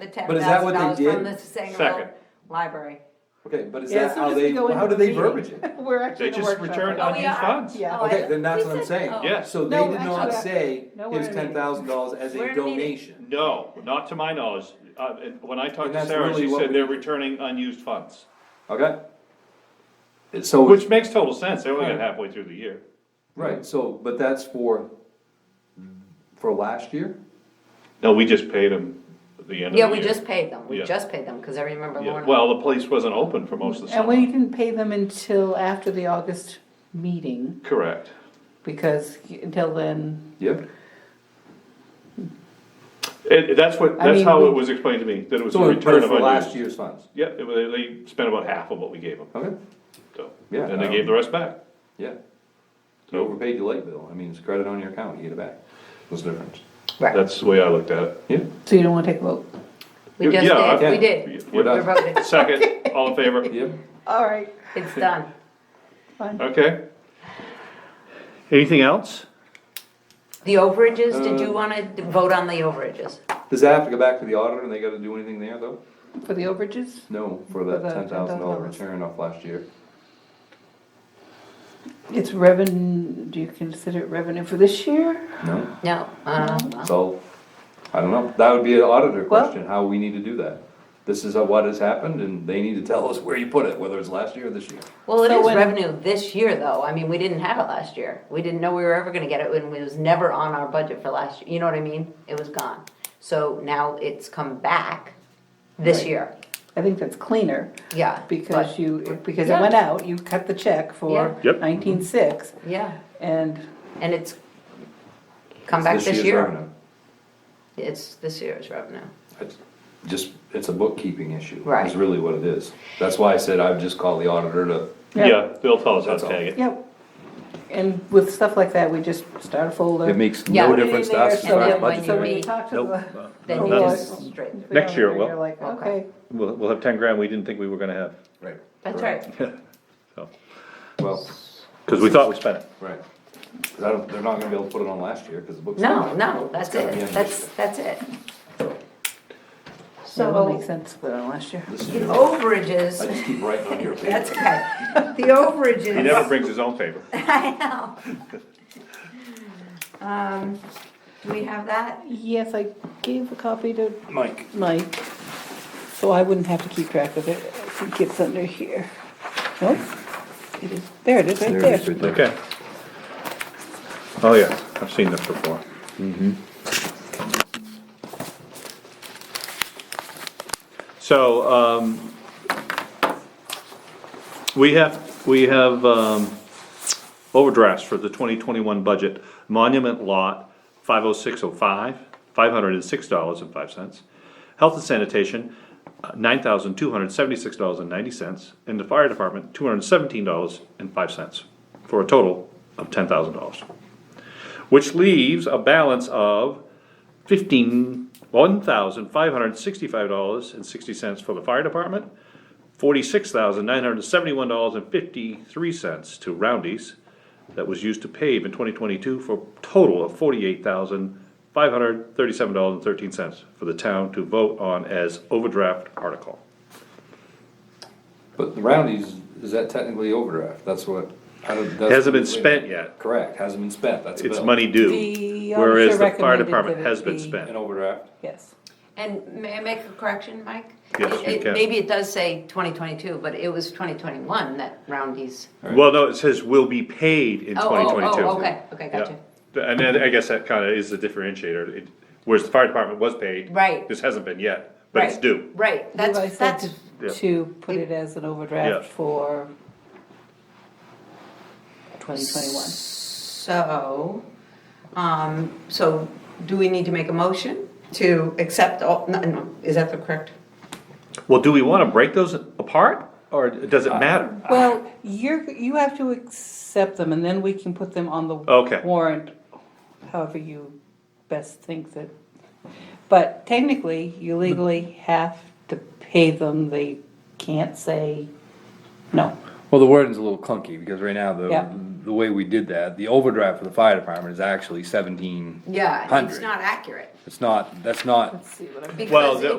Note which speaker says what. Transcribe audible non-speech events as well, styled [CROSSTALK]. Speaker 1: the ten
Speaker 2: But is that
Speaker 1: thousand
Speaker 2: what they
Speaker 1: dollars from
Speaker 2: did?
Speaker 1: the Sangerville
Speaker 3: Second.
Speaker 1: library.
Speaker 2: Okay, but is
Speaker 4: Yeah,
Speaker 2: that
Speaker 4: as soon
Speaker 2: how
Speaker 4: as we
Speaker 2: they,
Speaker 4: go
Speaker 2: how
Speaker 4: into
Speaker 2: do they
Speaker 4: the
Speaker 2: verbiage
Speaker 4: meeting,
Speaker 2: it?
Speaker 4: [LAUGHS] We're actually
Speaker 3: They
Speaker 4: in a
Speaker 3: just
Speaker 4: workshop right
Speaker 3: returned
Speaker 4: now.
Speaker 1: Oh, we
Speaker 3: unused
Speaker 1: are?
Speaker 3: funds.
Speaker 4: Yeah.
Speaker 1: Oh, I-
Speaker 2: Okay, then that's
Speaker 1: we
Speaker 2: what I'm
Speaker 1: said-
Speaker 2: saying.
Speaker 1: oh.
Speaker 3: Yeah.
Speaker 2: So they
Speaker 4: No,
Speaker 2: did not
Speaker 4: actually,
Speaker 2: say,
Speaker 4: no, we're
Speaker 2: here's
Speaker 4: in a
Speaker 2: ten thousand dollars as
Speaker 1: We're
Speaker 2: a
Speaker 1: in a meeting.
Speaker 2: donation.
Speaker 3: No, not to my knowledge. Uh, and when I talked
Speaker 2: And
Speaker 3: to
Speaker 2: that's
Speaker 3: Sarah, she
Speaker 2: really what
Speaker 3: said
Speaker 2: we-
Speaker 3: they're returning unused funds,
Speaker 2: Okay? So,
Speaker 3: which makes total sense. They only got
Speaker 2: Right.
Speaker 3: halfway through the year.
Speaker 2: right, so, but that's for, for last year?
Speaker 3: No, we just paid them at the end of the year.
Speaker 1: Yeah, we just paid them, we
Speaker 3: Yeah.
Speaker 1: just paid them, cause I remember
Speaker 3: Yeah,
Speaker 1: Lorna.
Speaker 3: Well, the place wasn't open for most of the
Speaker 4: And we
Speaker 3: summer.
Speaker 4: didn't pay them until after the August meeting,
Speaker 3: Correct.
Speaker 4: because until then,
Speaker 2: Yep.
Speaker 3: It, that's what,
Speaker 4: I
Speaker 3: that's
Speaker 4: mean,
Speaker 3: how
Speaker 4: we-
Speaker 3: it was explained to me, that it was a
Speaker 2: So, but
Speaker 3: return
Speaker 2: it's
Speaker 3: of
Speaker 2: for last
Speaker 3: unused.
Speaker 2: year's funds,
Speaker 3: Yeah, it was- they spent about half of what we gave them,
Speaker 2: okay?
Speaker 3: so,
Speaker 2: Yeah,
Speaker 3: and they
Speaker 2: um,
Speaker 3: gave the rest back.
Speaker 2: Yeah. You
Speaker 3: So-
Speaker 2: overpaid your late bill, I mean, it's credit on your account, you get it back. What's the difference?
Speaker 1: Right,
Speaker 3: That's the way I looked at it.
Speaker 2: Yeah,
Speaker 4: so you don't wanna take a vote.
Speaker 1: we just
Speaker 3: Yeah, I-
Speaker 1: did, we
Speaker 2: yeah.
Speaker 1: did,
Speaker 2: we're
Speaker 1: we
Speaker 2: done,
Speaker 1: wrote it,
Speaker 3: Second, all in
Speaker 2: [LAUGHS]
Speaker 3: favor?
Speaker 2: yep.
Speaker 4: All right,
Speaker 1: it's done.
Speaker 4: fine.
Speaker 3: Okay. Anything else?
Speaker 1: The overages, did
Speaker 2: Uh,
Speaker 1: you wanna d- vote on the overages?
Speaker 2: Does that have to go back to the auditor and they gotta do anything there though?
Speaker 4: For the overages,
Speaker 2: No, for that
Speaker 4: the
Speaker 2: ten thousand dollar
Speaker 4: $10,000.
Speaker 2: return off last year.
Speaker 4: it's revenue, do you consider it revenue for this year?
Speaker 2: No,
Speaker 1: No, uh,
Speaker 2: so, I don't know, that would be an auditor
Speaker 4: Well-
Speaker 2: question, how we need to do that. This is what has happened and they need to tell us where you put it, whether it's last year or this year.
Speaker 1: well, it
Speaker 4: So
Speaker 1: is
Speaker 4: when-
Speaker 1: revenue this year though, I mean, we didn't have it last year, we didn't know we were ever gonna get it, and it was never on our budget for last, year. you know what I mean? It was gone, so now it's come back this
Speaker 4: Right.
Speaker 1: year,
Speaker 4: I think that's cleaner,
Speaker 1: yeah.
Speaker 4: because
Speaker 1: but-
Speaker 4: you, because it
Speaker 1: Yeah.
Speaker 4: went out, you cut the check for
Speaker 1: Yeah.
Speaker 3: Yep.
Speaker 4: nineteen-six,
Speaker 1: Yeah,
Speaker 4: and
Speaker 1: and it's come back
Speaker 2: year's
Speaker 1: this year,
Speaker 2: revenue.
Speaker 1: it's this year's revenue.
Speaker 2: It's Just, it's a bookkeeping issue,
Speaker 1: Right.
Speaker 2: is really what it is. That's why I said I'd just call the auditor to,
Speaker 4: Yeah.
Speaker 3: Yeah, they'll tell us how
Speaker 2: That's
Speaker 3: to
Speaker 2: all.
Speaker 3: tag it.
Speaker 4: Yep. And with stuff like that, we just start a folder.
Speaker 2: it makes
Speaker 1: Yeah.
Speaker 2: no difference to us.
Speaker 1: so
Speaker 2: it's not
Speaker 1: then when
Speaker 2: budget.
Speaker 1: you
Speaker 4: So when you
Speaker 1: meet-
Speaker 4: talk to
Speaker 5: Nope.
Speaker 4: the.
Speaker 1: Then
Speaker 4: Oh,
Speaker 1: you
Speaker 4: well,
Speaker 1: just straighten.
Speaker 5: Next year it will.
Speaker 4: You're like,
Speaker 1: Okay.
Speaker 4: okay,
Speaker 5: We'll, we'll have ten grand we didn't think we were gonna have,
Speaker 2: Right.
Speaker 1: That's right.
Speaker 2: Well,
Speaker 5: cause we thought we spent it.
Speaker 2: right. 'Cause I don't, they're not gonna be able to put it on last year, cause the book's.
Speaker 1: No, no, that's
Speaker 2: It's gotta be
Speaker 1: it,
Speaker 2: on
Speaker 1: that's,
Speaker 2: this
Speaker 1: that's it.
Speaker 4: that will
Speaker 1: So,
Speaker 4: make sense for last year.
Speaker 2: year. This
Speaker 1: the
Speaker 2: year. I
Speaker 1: overages,
Speaker 2: just keep writing on your paper.
Speaker 1: that's okay, the
Speaker 3: He never
Speaker 1: overages,
Speaker 3: brings his own paper.
Speaker 1: [LAUGHS] I know. Um, do we have that?
Speaker 4: Yes, I gave a copy to
Speaker 2: Mike.
Speaker 4: Mike, so I wouldn't have to keep track of it. I think it's under here. Nope. It is- There it is, right there.
Speaker 5: Okay. Oh, yeah, I've seen this before. So, um, we have, we have, um, overdrafts for the twenty twenty-one budget. Monument lot, five oh six oh five, five hundred and six dollars and five cents. Health and sanitation, uh, nine thousand two hundred seventy-six dollars and ninety cents. And the fire department, two hundred seventeen dollars and five cents, for a total of ten thousand dollars. Which leaves a balance of fifteen, one thousand five hundred sixty-five dollars and sixty cents for the fire department, forty-six thousand nine hundred seventy-one dollars and fifty-three cents to Roundy's that was used to pave in twenty twenty-two for a total of forty-eight thousand five hundred thirty-seven dollars and thirteen cents for the town to vote on as overdraft article.
Speaker 2: But the roundies, is that technically overdraft? That's what. I don't- that's-
Speaker 5: Hasn't been spent yet,
Speaker 2: Correct, hasn't been spent, that's a
Speaker 5: it's
Speaker 2: bill.
Speaker 5: money due,
Speaker 4: The
Speaker 5: whereas
Speaker 4: auditor
Speaker 5: the fire
Speaker 4: recommended
Speaker 5: department
Speaker 4: that it
Speaker 5: has been
Speaker 4: be-
Speaker 5: spent.
Speaker 2: An overdraft,
Speaker 4: Yes.
Speaker 1: And may I make a correction, Mike?
Speaker 5: Yes,
Speaker 1: It-
Speaker 5: you
Speaker 1: it-
Speaker 5: can.
Speaker 1: Maybe it does say twenty twenty-two, but it was twenty twenty-one that Roundy's,
Speaker 5: Well, no, it says will be paid in
Speaker 1: Oh, oh, oh,
Speaker 5: twenty twenty-two.
Speaker 1: okay, okay, gotcha.
Speaker 5: And then I guess that kinda is the differentiator, it, whereas the fire department was paid.
Speaker 1: Right.
Speaker 5: This hasn't been yet, but
Speaker 1: right?
Speaker 5: it's due.
Speaker 1: Right,
Speaker 4: Levi
Speaker 1: that's,
Speaker 4: said
Speaker 1: that's,
Speaker 4: to- To put it as an overdraft
Speaker 5: Yeah.
Speaker 4: for twenty twenty-one.
Speaker 1: So, um, so do we need to make a motion to accept all, no, no, is that the correct?
Speaker 5: Well, do we wanna break those apart, or does it matter?
Speaker 4: Well, you're, you have to accept them and then we can put them on the
Speaker 5: Okay.
Speaker 4: warrant, however you best think that. But technically, you legally have to pay them, they can't say no.
Speaker 6: Well, the wording's a little clunky, because right now,
Speaker 4: Yeah.
Speaker 6: the, the way we did that, the overdraft for the fire department is actually seventeen,
Speaker 1: Yeah, it's
Speaker 6: Hundred.
Speaker 1: not accurate.
Speaker 6: it's not, that's not
Speaker 4: Let's see what I
Speaker 1: because
Speaker 5: Well, the-
Speaker 1: it